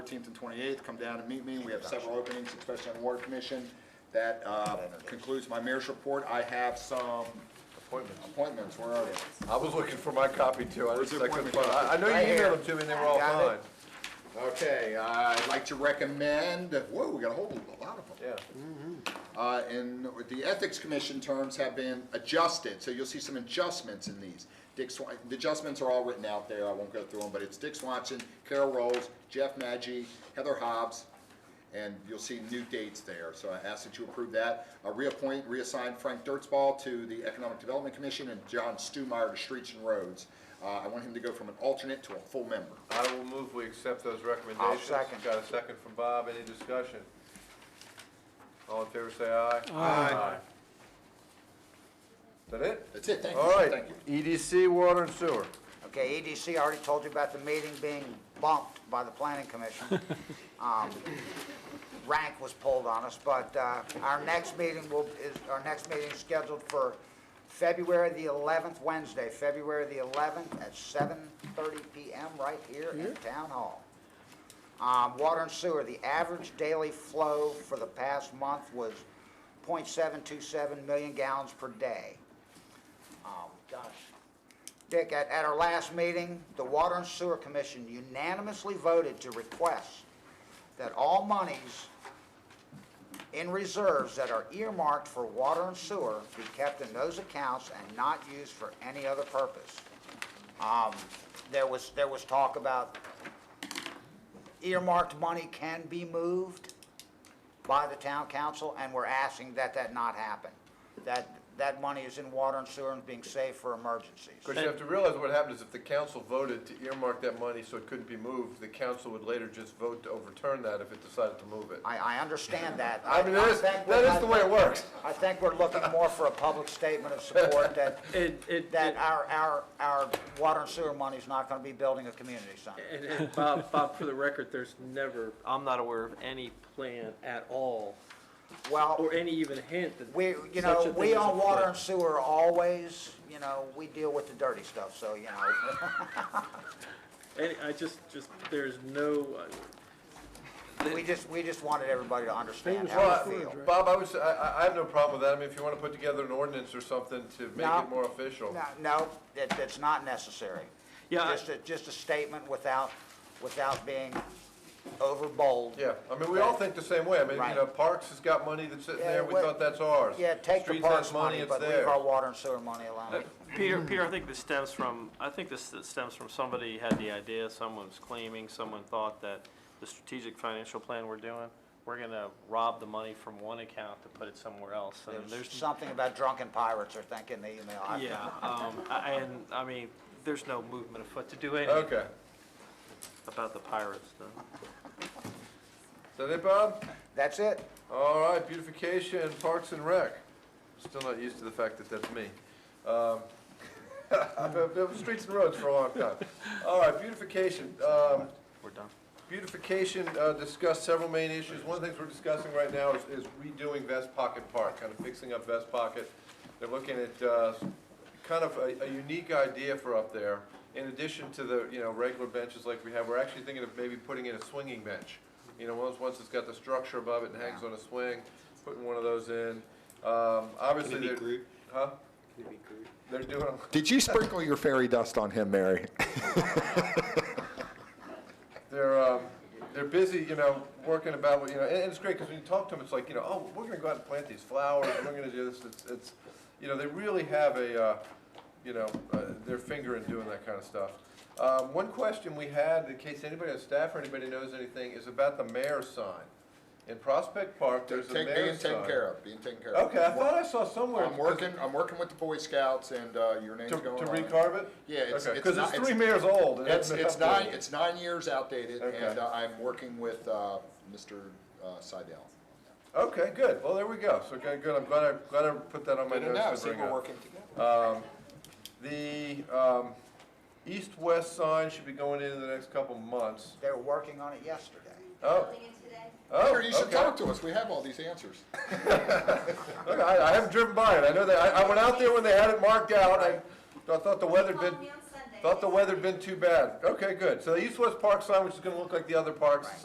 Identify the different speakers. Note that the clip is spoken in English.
Speaker 1: 14th and 28th, come down and meet me. We have several openings, especially on Water Commission. That uh, concludes my mayor's report. I have some
Speaker 2: Appointments.
Speaker 1: appointments. Where are they?
Speaker 2: I was looking for my copy too. I
Speaker 1: Where's
Speaker 2: just,
Speaker 1: your
Speaker 2: I couldn't
Speaker 1: appointment
Speaker 2: find, I I know
Speaker 1: Right
Speaker 2: you
Speaker 1: here.
Speaker 2: emailed them to me and they were all
Speaker 1: Got
Speaker 2: fine.
Speaker 1: it. Okay, I'd like to recommend, whoa, we got a whole lot of them.
Speaker 2: Yeah.
Speaker 1: Uh, And the Ethics Commission terms have been adjusted, so you'll see some adjustments in these. Dick Swan, the adjustments are all written out there, I won't go through them, but it's Dick Swanson, Carol Rolls, Jeff Maggi, Heather Hobbs, and you'll see new dates there, so I ask that you approve that. Uh, Reappoint, reassign Frank Dirtsball to the Economic Development Commission and John Stumeyer to Streets and Roads. Uh, I want him to go from an alternate to a full member.
Speaker 2: I will move we accept those recommendations.
Speaker 3: second.
Speaker 2: Got a second from Bob. Any discussion? All in favor, say aye. Aye. Is that it?
Speaker 1: That's it, thank you,
Speaker 2: All
Speaker 1: sir,
Speaker 2: right.
Speaker 1: thank you.
Speaker 2: EDC, water and sewer.
Speaker 3: Okay, EDC, I already told you about the meeting being bumped by the planning commission. Um, Rank was pulled on us, but uh, our next meeting will, is, our next meeting is scheduled for February the 11th, Wednesday, February the 11th at 7:30 PM right here in Town Hall. Um, Water and sewer, the average daily flow for the past month was .727 million gallons per day. Um, Gosh, Dick, at, at our last meeting, the Water and Sewer Commission unanimously voted to request that all monies in reserves that are earmarked for water and sewer be kept in those accounts and not used for any other purpose. Um, there was, there was talk about earmarked money can be moved by the town council, and we're asking that that not happen. That, that money is in water and sewer and being saved for emergencies.
Speaker 2: Because you have to realize what happens if the council voted to earmark that money so it couldn't be moved, the council would later just vote to overturn that if it decided to move it.
Speaker 3: I, I understand that.
Speaker 2: I mean, that is,
Speaker 3: think
Speaker 2: that
Speaker 3: we're-
Speaker 2: is the way it works.
Speaker 3: I think we're looking more for a public statement of support that,
Speaker 4: It, it,
Speaker 3: that our, our, our water and sewer money is not gonna be building a community center.
Speaker 4: and, and Bob, Bob, for the record, there's never, I'm not aware of any plan at all,
Speaker 3: Well,
Speaker 4: or any even hint that
Speaker 3: we, you
Speaker 4: such a
Speaker 3: know,
Speaker 4: thing
Speaker 3: we
Speaker 4: is
Speaker 3: on water and
Speaker 4: afoot.
Speaker 3: sewer always, you know, we deal with the dirty stuff, so, you know.
Speaker 4: Any, I just, just, there's no, uh,
Speaker 3: We just, we just wanted everybody to understand how
Speaker 2: Well,
Speaker 3: we feel.
Speaker 2: I- Bob, I would say, I, I- I have no problem with that. I mean, if you want to put together an ordinance or something to make
Speaker 3: No.
Speaker 2: it more official.
Speaker 3: No, No, that, that's not necessary.
Speaker 4: Yeah, I-
Speaker 3: Just a, just a statement without, without being overbold.
Speaker 2: Yeah, I mean, we all think the same way. I mean, you
Speaker 3: Right.
Speaker 2: know, Parks has got money that's sitting
Speaker 3: Yeah,
Speaker 2: there, we
Speaker 3: well,
Speaker 2: thought that's ours.
Speaker 3: Yeah, take the
Speaker 2: Streets has
Speaker 3: parks money,
Speaker 2: it's
Speaker 3: but leave
Speaker 2: theirs.
Speaker 3: our water and sewer money alone.
Speaker 5: Peter, Peter, I think this stems from, I think this stems from somebody had the idea, someone was claiming, someone thought that the strategic financial plan we're doing, we're gonna rob the money from one account to put it somewhere else, and
Speaker 3: There's
Speaker 5: there's,
Speaker 3: something about drunken pirates are thinking the email. I-
Speaker 5: yeah, um, I- and, I mean, there's no movement afoot to do anything
Speaker 2: Okay.
Speaker 5: about the pirates, though.
Speaker 2: Is that it, Bob?
Speaker 3: That's it.
Speaker 2: All right, beautification, Parks and Rec. Still not used to the fact that that's me. Um, I've been- been on streets and roads for a long time. All right, beautification. um,
Speaker 5: We're done.
Speaker 2: Beautification uh, discussed several main issues. One of the things we're discussing right now is is redoing Vest Pocket Park, kind of fixing up Vest Pocket. They're looking at uh, kind of a a unique idea for up there. In addition to the, you know, regular benches like we have, we're actually thinking of maybe putting in a swinging bench. You know, once, once it's got the structure above it and hangs on a swing, putting one of those in. Um, Obviously, they're. Huh? They're doing, a-
Speaker 1: Did you sprinkle your fairy dust on him, Mary?
Speaker 2: they're, um, they're busy, you know, working about, what you know, and, and it's great, because when you talk to them, it's like, you know, oh, we're gonna go out and plant these flowers, and we're gonna do this, it's, it's, you know, they really have a, uh, you know, uh, their finger in doing that kind of stuff. Um, one question we had, in case anybody on staff or anybody knows anything, is about the mayor's sign. In Prospect Park, there's a
Speaker 1: Take- Being
Speaker 2: mayor's sign.
Speaker 1: taken care of, being taken care of.
Speaker 2: Okay, I thought I saw somewhere.
Speaker 1: I'm working, I'm working with the Boy Scouts and, uh, your name's
Speaker 2: To,
Speaker 1: going on.
Speaker 2: to
Speaker 1: it.
Speaker 2: recarve it?
Speaker 1: Yeah, it's- it's
Speaker 2: Because
Speaker 1: not-
Speaker 2: it's
Speaker 1: it's-
Speaker 2: three mayors old. it
Speaker 1: It's,
Speaker 2: hasn't been
Speaker 1: it's
Speaker 2: updated.
Speaker 1: nine, it's nine years outdated and
Speaker 2: Okay.
Speaker 1: uh, I'm working with, uh, Mr. uh, Seidel.
Speaker 2: Okay, good. Well, there we go. So, okay, good. I'm glad I, glad I put that on my
Speaker 1: Good to
Speaker 2: notes
Speaker 1: know,
Speaker 2: to
Speaker 1: see,
Speaker 2: bring
Speaker 1: we're
Speaker 2: up.
Speaker 1: working together.
Speaker 2: The, um, east-west sign should be going in in the next couple months.
Speaker 3: They were working on it yesterday.
Speaker 2: Oh,
Speaker 6: building it today.
Speaker 2: oh,
Speaker 1: Peter, you should
Speaker 2: okay.
Speaker 1: talk to us, we have all these answers.
Speaker 2: Okay, I, I haven't driven by it. I know that, I, I went out there when they had it marked out. I, I thought the weather'd been,
Speaker 6: Call me on Sunday.
Speaker 2: thought the weather'd been too bad. Okay, good. So the east-west park sign, which is gonna look like the other parks,